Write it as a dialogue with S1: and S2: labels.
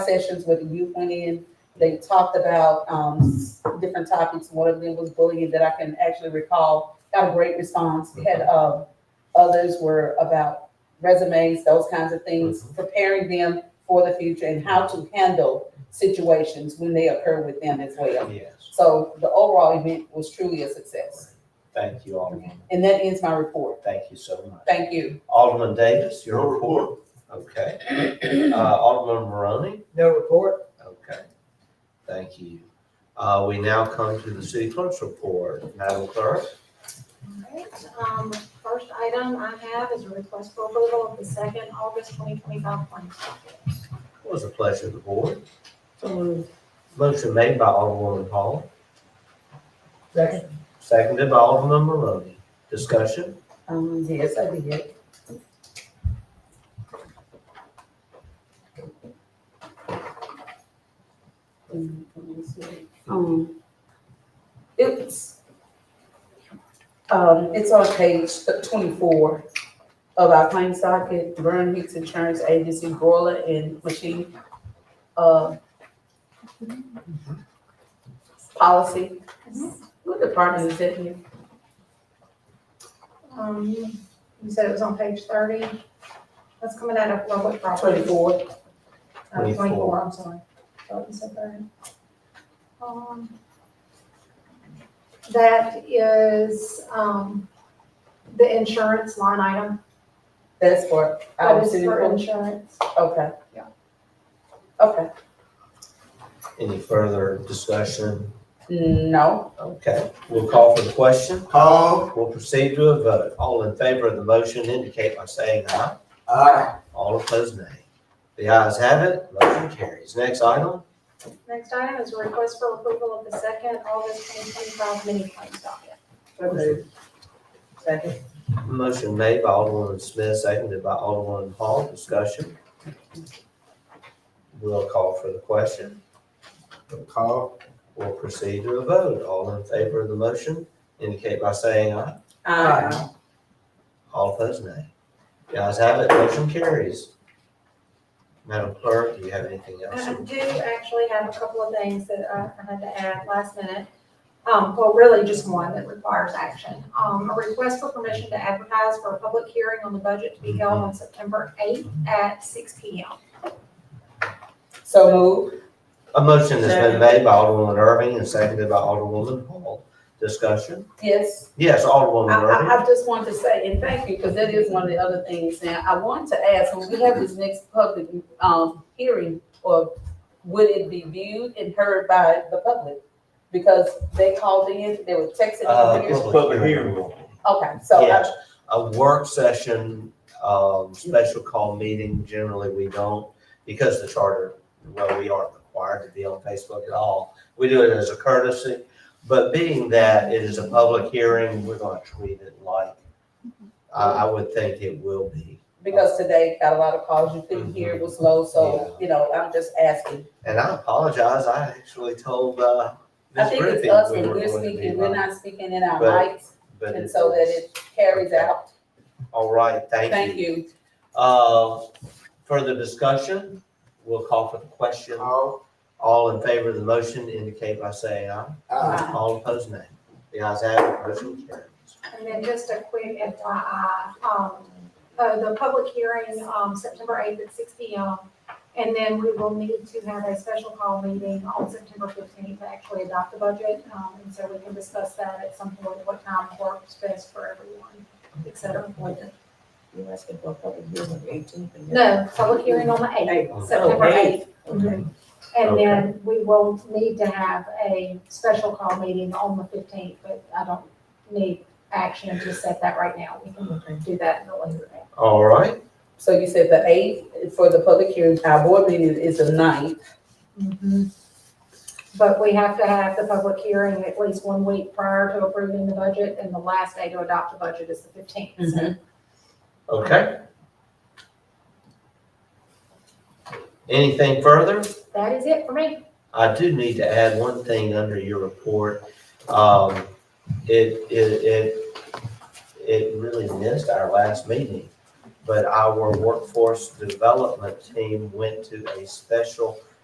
S1: sessions where the youth went in. They talked about um, s- different topics. One of them was bullying that I can actually recall. Got a great response. We had um, others were about resumes, those kinds of things, preparing them for the future and how to handle situations when they occur with them as well.
S2: Yes.
S1: So the overall event was truly a success.
S2: Thank you, Alderman.
S1: And that ends my report.
S2: Thank you so much.
S1: Thank you.
S2: Alderman Davis,
S3: No
S2: your report? Okay. Uh, Alderman Maroney?
S4: No report.
S2: Okay. Thank you. Uh, we now come to the city clerk's report. Madam Clerk?
S5: Alright, um, first item I have is a request for approval of the second August twenty twenty-five claim docket.
S2: What was the pleasure of the board?
S4: So moved.
S2: Motion made by Alderwoman Hall,
S4: Second.
S2: seconded by Alderman Maroney. Discussion?
S1: Um, yes, I did. Um, it's, um, it's on page twenty-four of our claim socket, Burn Hicks Insurance Agency, broiler and machine, uh, policy. What department is that in?
S5: Um, you said it was on page thirty, that's coming out of public property.
S1: Twenty-four.
S5: Uh, Twenty-four, I'm sorry. Thought you said thirty. Um, That is, um, the insurance line item,
S1: That's for
S5: that
S1: our
S5: is
S1: city
S5: for
S1: clerk?
S5: insurance.
S1: Okay.
S5: Yeah.
S1: Okay,
S2: Any further discussion?
S1: no,
S2: Okay, we'll call for the question.
S3: Hall.
S2: We'll proceed to a vote. All in favor of the motion indicate by saying aye.
S3: Aye.
S2: All opposed, nay. The ayes have it, motion carries. Next item,
S5: Next item is a request for approval of the second August twenty twenty-five mini claims docket.
S4: So moved. Second.
S2: motion made by Alderman Smith, seconded by Alderman Hall, discussion. We'll call for the question,
S3: Hall.
S2: we'll proceed to a vote. All in favor of the motion indicate by saying aye.
S1: uh,
S2: All opposed, nay. The ayes have it, motion carries. Madam Clerk, do you have anything else?
S5: I I do actually have a couple of things that uh, I had to add last minute. Um, well, really just one that requires action. Um, a request for permission to advertise for a public hearing on the budget to be held on September eighth at six P M.
S1: so move,
S2: A motion has been made by Alderwoman Irving and seconded by Alderwoman Hall. Discussion?
S1: yes.
S2: Yes,
S1: I,
S2: Alderwoman Irving.
S1: I, I just want to say, and thank you, because that is one of the other things now, I want to ask, when we have this next public, um, hearing, or would it be viewed and heard by the public? Because they called in, they were texting
S2: Uh,
S1: over here,
S2: public hearing.
S1: okay, so, uh,
S2: Yes,
S1: I-
S2: a work session, um, special call meeting, generally we don't, because the charter, well, we aren't required to be on Facebook at all. We do it as a courtesy, but being that it is a public hearing, we're gonna treat it like, I, I would think it will be.
S1: because today got a lot of calls, you couldn't hear, it was low, so, you know, I'm just asking.
S2: And I apologize, I actually told, uh,
S1: I
S2: Ms.
S1: think it's
S2: Griffin.
S1: us
S2: we
S1: when
S2: were
S1: we're
S2: going to be
S1: speaking, we're
S2: live,
S1: not speaking in our
S2: But-
S1: mics.
S2: but
S1: And so that it carries out.
S2: All right,
S1: Thank you.
S2: Uh, Further discussion? We'll call for the question.
S3: Hall.
S2: All in favor of the motion indicate by saying aye.
S3: Aye.
S2: All opposed, nay. The ayes have it, motion carries.
S5: And then just a quick FYI, um, uh, the public hearing, um, September eighth at six P M. And then we will need to have a special call meeting on September fifteenth to actually adopt the budget. Um, and so we can discuss that at some point, what time works best for everyone, et cetera.
S4: You asking for a public hearing on the eighteenth? Oh,
S5: No, public hearing on the eighth, September eighth.
S4: Okay.
S5: And then we will need to have a special call meeting on the fifteenth, but I don't need action to set that right now. We can
S4: Okay.
S5: do that in a later date.
S2: All right,
S1: So you said the eighth for the public hearing, our board meeting is the ninth.
S5: Mhm. But we have to have the public hearing at least one week prior to approving the budget, and the last day to adopt the budget is the fifteenth.
S2: okay. Anything further?
S5: That is it for me.
S2: I do need to add one thing under your report. Um, it, it, it, it really missed our last meeting. But our workforce development team went to a special